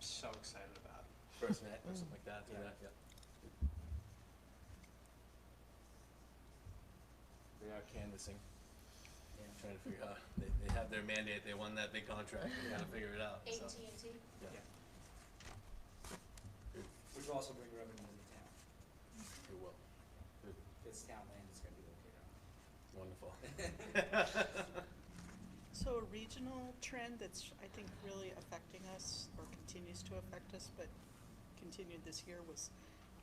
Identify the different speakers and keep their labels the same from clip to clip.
Speaker 1: so excited about.
Speaker 2: FirstNet or something like that,
Speaker 1: Yeah.
Speaker 2: yeah, yeah. They are canvassing, trying to figure out, they, they have their mandate, they won that big contract, they gotta figure it out, so.
Speaker 3: AT&T?
Speaker 4: Which will also bring revenue to the town,
Speaker 2: It will. Good.
Speaker 4: because town land is gonna be located on. it.
Speaker 2: Wonderful. Mm-hmm.
Speaker 5: So a regional trend that's, I think, really affecting us or continues to affect us, but continued this year was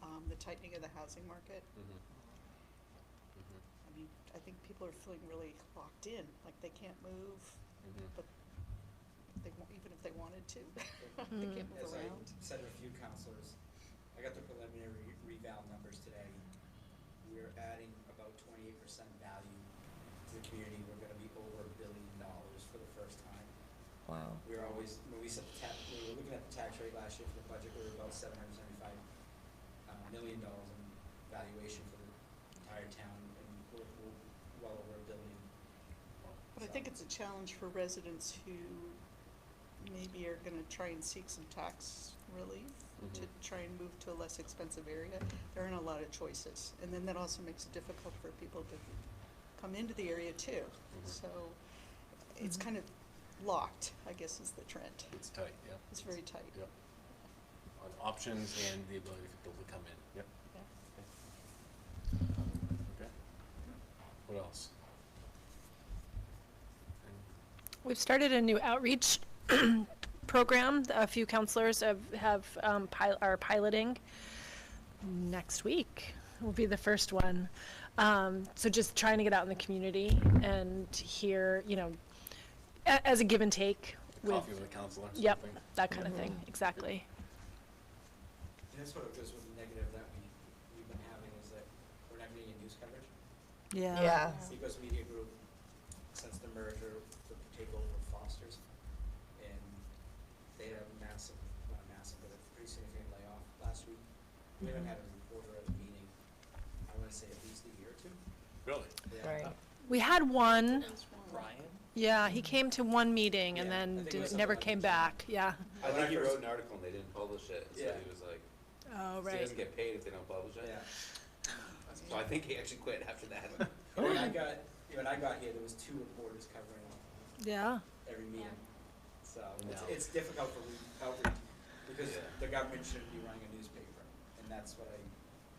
Speaker 5: um, the tightening of the housing market.
Speaker 2: Mhm. Mhm.
Speaker 5: I mean, I think people are feeling really locked in, like they can't move,
Speaker 2: Mhm.
Speaker 5: but they, wa- even if they wanted to, they can't
Speaker 4: As
Speaker 5: move
Speaker 4: I
Speaker 5: around.
Speaker 4: said to a few counselors, I got the preliminary reval numbers today. We're adding about twenty-eight percent value to the community. We're gonna be over a billion dollars for the first time.
Speaker 6: Wow.
Speaker 4: We were always, when we set the tax, we were looking at the tax rate last year for the budget, we were about seven hundred seventy-five uh, million dollars in valuation for the entire town, and we're, we're well over a billion.
Speaker 5: But I think
Speaker 4: So-
Speaker 5: it's a challenge for residents who maybe are gonna try and seek some tax relief to
Speaker 2: Mhm.
Speaker 5: try and move to a less expensive area. There aren't a lot of choices, and then that also makes it difficult for people to come into the area too.
Speaker 2: Mhm.
Speaker 5: So it's
Speaker 6: Mhm.
Speaker 5: kind of locked, I guess is the trend.
Speaker 2: It's tight, yeah.
Speaker 5: It's very tight.
Speaker 2: Yep. On options and the ability for people to come in. Yep.
Speaker 5: Yeah.
Speaker 2: Okay. What else? And-
Speaker 7: We've started a new outreach program. A few counselors have, have, um, pil- are piloting. Next week will be the first one. Um, so just trying to get out in the community and hear, you know, a- as a give and take with,
Speaker 2: Coffee with a counselor or
Speaker 7: yep,
Speaker 2: something?
Speaker 7: that kind of thing, exactly.
Speaker 4: And that's what it goes with the negative that we, we've been having is that we're not getting any news coverage.
Speaker 6: Yeah.
Speaker 4: Seacoast Media Group, since the merger, the takeover of Foster's, and they had a massive, not massive, but a pretty significant layoff last week. We haven't had a reporter at a meeting, I wanna say at least a year or two.
Speaker 2: Really?
Speaker 4: They haven't-
Speaker 6: Right.
Speaker 7: We had one,
Speaker 1: Brian?
Speaker 7: yeah, he came to one meeting and
Speaker 4: Yeah, I
Speaker 7: then
Speaker 4: think it
Speaker 7: did-
Speaker 4: was
Speaker 7: never
Speaker 4: something like
Speaker 7: came
Speaker 4: that.
Speaker 7: back, yeah.
Speaker 4: When
Speaker 8: I think he
Speaker 4: first-
Speaker 8: wrote an article and they didn't publish it, and so
Speaker 4: Yeah.
Speaker 8: he was like,
Speaker 7: Oh,
Speaker 8: he
Speaker 7: right.
Speaker 8: doesn't get paid if they don't publish it.
Speaker 4: Yeah,
Speaker 8: So I think he actually quit after that.
Speaker 4: And when I got, when I got here, there was two reporters covering
Speaker 7: Yeah.
Speaker 4: every meeting. So it's,
Speaker 2: No.
Speaker 4: it's difficult for re- outreach because
Speaker 8: Yeah.
Speaker 4: the government shouldn't be running a newspaper, and that's what I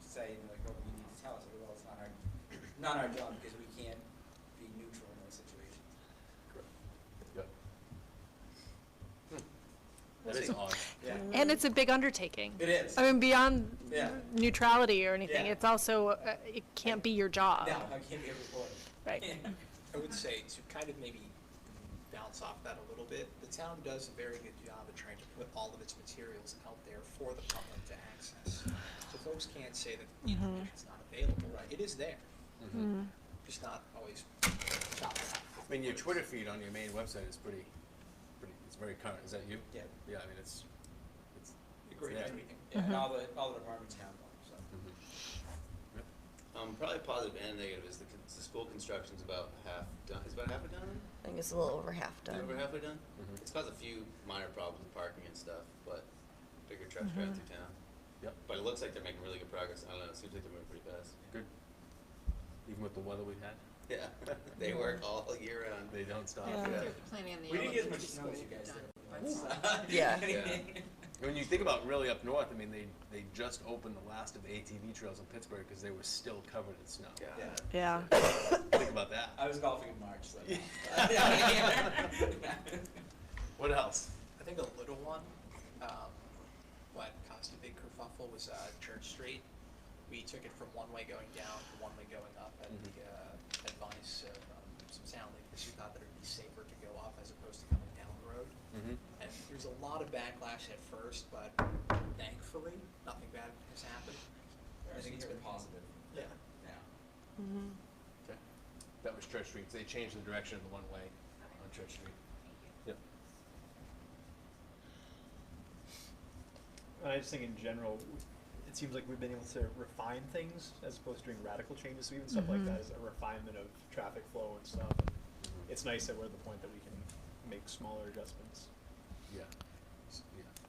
Speaker 4: say. And they're like, oh, you need to tell us. I go, well, it's not our not our job because we can't be neutral in those situations.
Speaker 2: Yep. Hmm. That is odd.
Speaker 4: Yeah,
Speaker 7: And it's a big undertaking.
Speaker 4: it is.
Speaker 7: I mean, beyond
Speaker 4: Yeah.
Speaker 7: neutrality or anything,
Speaker 4: Yeah.
Speaker 7: it's also, uh, it can't be your job.
Speaker 4: no, I can't be a reporter.
Speaker 7: Right.
Speaker 1: I would say to kind of maybe bounce off that a little bit, the town does a very good job of trying to put all of its materials out there for the public to access. So folks can't say that, you know, it's not available, right? It is there,
Speaker 2: Mhm.
Speaker 1: just not always chopped up.
Speaker 2: I mean, your Twitter feed on your main website is pretty, pretty, it's very current. Is that you?
Speaker 4: Yeah,
Speaker 2: Yeah, I mean, it's, it's,
Speaker 1: Agree with
Speaker 2: Yeah.
Speaker 1: everything.
Speaker 4: yeah and all the all the departments have one. So
Speaker 2: mhm.
Speaker 8: um, probably positive and negative is the, con- the school construction's about half done. Is about halfway done?
Speaker 6: I think it's a little over half
Speaker 8: Is it
Speaker 6: done.
Speaker 8: Over halfway done?
Speaker 2: Mhm.
Speaker 8: It's caused a few minor problems with parking and stuff, but bigger trucks drive through town.
Speaker 2: Yep.
Speaker 8: But it looks like they're making really good progress. I don't know. It seems like they're moving pretty fast.
Speaker 2: good. Even with the weather we've had,
Speaker 8: Yeah, they work all year round.
Speaker 2: they don't stop.
Speaker 7: Yeah.
Speaker 8: Yeah.
Speaker 4: we didn't get as much snow as you guys did.
Speaker 6: Yeah.
Speaker 8: Yeah.
Speaker 2: When you think about really up north, I mean, they, they just opened the last of the ATV trails in Pittsburgh because they were still covered in snow.
Speaker 8: God.
Speaker 4: Yeah.
Speaker 1: uh,
Speaker 7: Yeah.
Speaker 2: Think about that.
Speaker 4: I was golfing in March, so.
Speaker 2: What else?
Speaker 1: I think a little one, um, what caused a big kerfuffle was, uh, Church Street. We took it from one way going down to one way going up at the, uh, advice of, um, some sound leaders who thought that it'd be safer to go up as opposed to coming down the road.
Speaker 2: Mm-hmm.
Speaker 1: And there was a lot of backlash at first, but thankfully, nothing bad has happened.
Speaker 4: I think it's been positive
Speaker 1: Yeah.
Speaker 4: now.
Speaker 2: Okay. That was Church Street. They changed the direction of the one-way on Church Street. Yep.
Speaker 9: I just think in general, w- it seems like we've been able to refine things as opposed to doing radical changes. So even stuff like that is a refinement of traffic flow and stuff. It's nice that we're at the point that we can make smaller adjustments.
Speaker 2: Yeah. S- yeah.